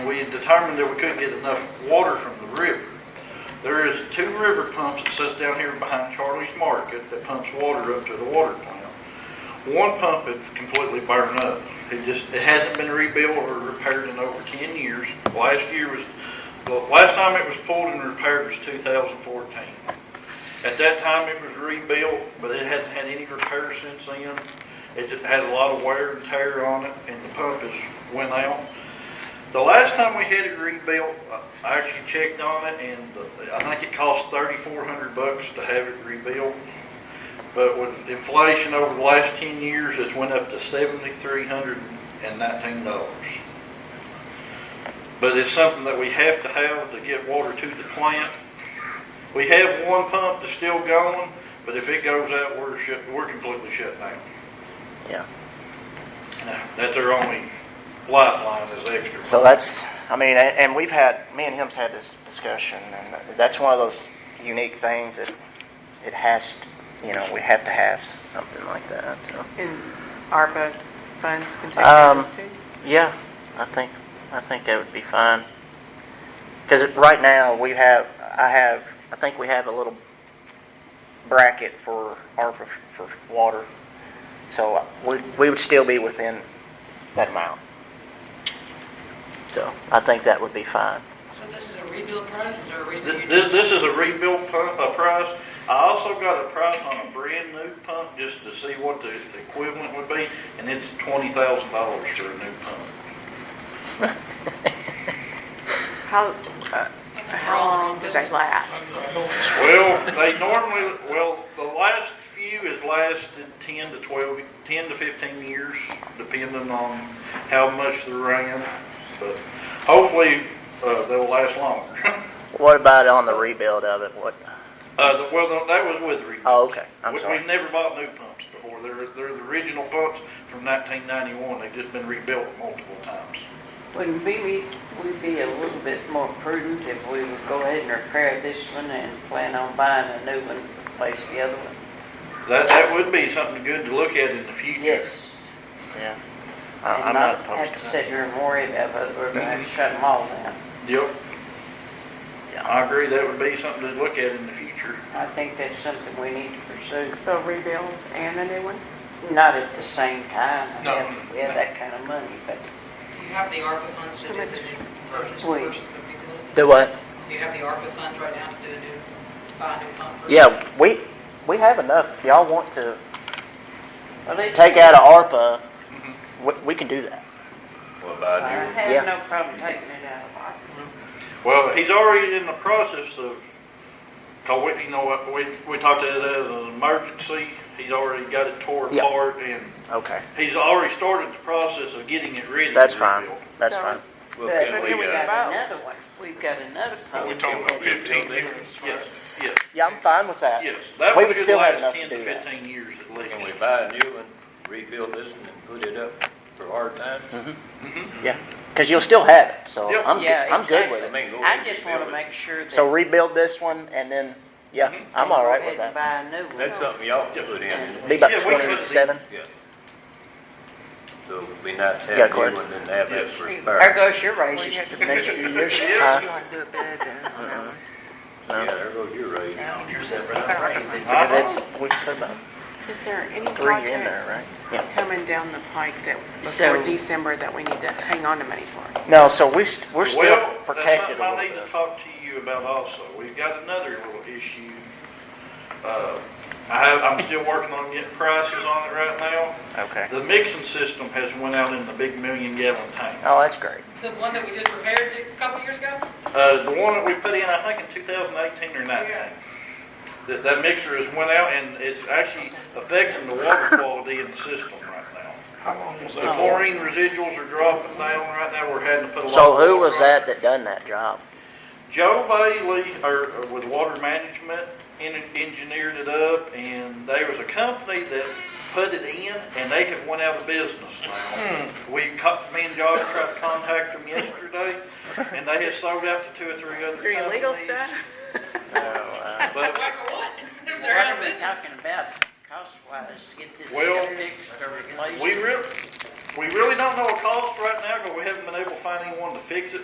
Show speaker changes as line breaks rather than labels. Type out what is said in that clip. determined that we couldn't get enough water from the river. There is two river pumps that sits down here behind Charlie's Market that pumps water up to the water plant. One pump had completely burned up. It just, it hasn't been rebuilt or repaired in over ten years. Last year was, the last time it was pulled and repaired was two thousand fourteen. At that time, it was rebuilt, but it hasn't had any repairs since then. It just had a lot of wear and tear on it, and the pump has went out. The last time we had it rebuilt, I actually checked on it, and the- I think it cost thirty-four hundred bucks to have it rebuilt. But with inflation over the last ten years, it's went up to seventy-three hundred and nineteen dollars. But it's something that we have to have to get water to the plant. We have one pump that's still going, but if it goes out, we're shut, we're completely shut down.
Yeah.
Now, That's our only lifeline is extra.
So that's, I mean, and and we've had, me and him's had this discussion, and that's one of those unique things that it has, to- you know, we have to have s- something like that, so.
And ARPA funds can take care
Um,
of this too?
Yeah, I think, I think that would be fine. Because right now, we have, I have, I think we have a little bracket for ARPA f- for water. So uh, we, we would still be within that amount. So I think that would be fine.
So this is a rebuild price, is there a reason you
This,
just?
this- this is a rebuilt pump, a price. I also got a price on a brand new pump just to see what the the equivalent would be, and it's twenty thousand dollars for a new pump.
How, uh, how long does that last?
Well, they normally, well, the last few has lasted ten to twelve, ten to fifteen years, depending on how much they're ran. But hopefully, uh, they'll last longer.
What about on the rebuild of it? What?
Uh, the- well, no, that was with re.
Oh, okay. I'm
We-
sorry.
We've never bought new pumps before. They're, they're the original pumps from nineteen ninety-one. They've just been rebuilt multiple times.
Wouldn't we, be- we be a little bit more prudent if we would go ahead and repair this one and plan on buying a new one to replace the other one?
That, that would be something good to look at in the future.
Yes.
Yeah. I- I'm not
And not have
opposed
to
to that.
sit here and worry about whether we're gonna have to shut them all down.
Yep.
Yeah.
I agree. That would be something to look at in the future.
I think that's something we need to pursue,
So rebuild and a new one?
not at the same time. I
No,
mean, if We have that kind of money, but
You have the ARPA funds to do the new purchase
Wait.
versus the rebuild?
Do what?
You have the ARPA funds right now to do a new, to buy a new pump? versus-
Yeah, we, we have enough. Y'all want to
Well, it's-
take out of ARPA, we, we can do that.
What
I
about you?
Yeah.
have no problem taking it out of our.
Well, he's already in the process of, cause we, you know, what, we, we talked about it as an emergency. He's already got it tore
Yeah.
apart and
Okay,
he's already started the process of getting it ready. to
that's fine.
rebuild.
That's
So-
fine.
Well,
But
can uh,
we
we've
got
got
both?
another one, we've got another problem.
We're talking about fifteen years.
Yes, yes,
Yeah, I'm fine with that.
yes. That
We
one
would
could
still have
last
enough to
ten to
do that.
fifteen years at least.
Can we buy a new one, rebuild this one, and put it up for hard times?
Yeah, because you'll still have it, so
Yep.
I'm, good-
Yeah,
I'm good
I
with it.
mean, go ahead
I
and
just
rebuild
wanna
it.
make sure that.
So rebuild this one and then, yeah,
Mm-hmm.
I'm all right with that.
Buy a new one.
That's something y'all can put in.
Yeah,
Be about
we could-
twenty-seven?
Yeah. So it'd be nice to
Yeah,
have a
Gordon.
new one and have that for
Yes.
There
spare.
goes your
Well,
raises
you have to
for the next few years.
Uh-huh.
Huh?
Yeah, there goes your raise.
Uh-huh.
Because it's, we put about
Is there any
three in there,
projects
right? Yeah.
coming down the pike that,
So-
before December, that we need to hang on to money for?
No, so we, st- we're still
Well,
protected a
That's something
little
I need to
bit.
talk to you about also. We've got another little issue. Uh, I have, I'm still working on getting prices on it right now.
Okay.
The mixing system has went out in the big million gallon tank.
Oh, that's great.
The one that we just repaired a couple years ago?
Uh, the one that we put in, I think in two thousand eighteen or
Yeah.
nineteen. That, that mixer has went out and it's actually affecting the water quality in the system right now.
How long was
The
that?
chlorine residuals are dropping down right now. We're having to put a lot.
So
of
who was
water on it.
that that done that job?
Joe Bailey, or or with Water Management, en- engineered it up, and there was a company that put it in, and they have went out of business now.
Hmm.
We, co- me and Josh tried to contact them yesterday, and they had sold out to two or three other companies.
Through illegal stuff?
Oh, uh,
But,
Like for what? If
What
they're out of
are we
business?
talking about cost-wise to get this
Well,
thing fixed or replaced?
We really, we really don't know a cost right now, because we haven't been able to find anyone to fix it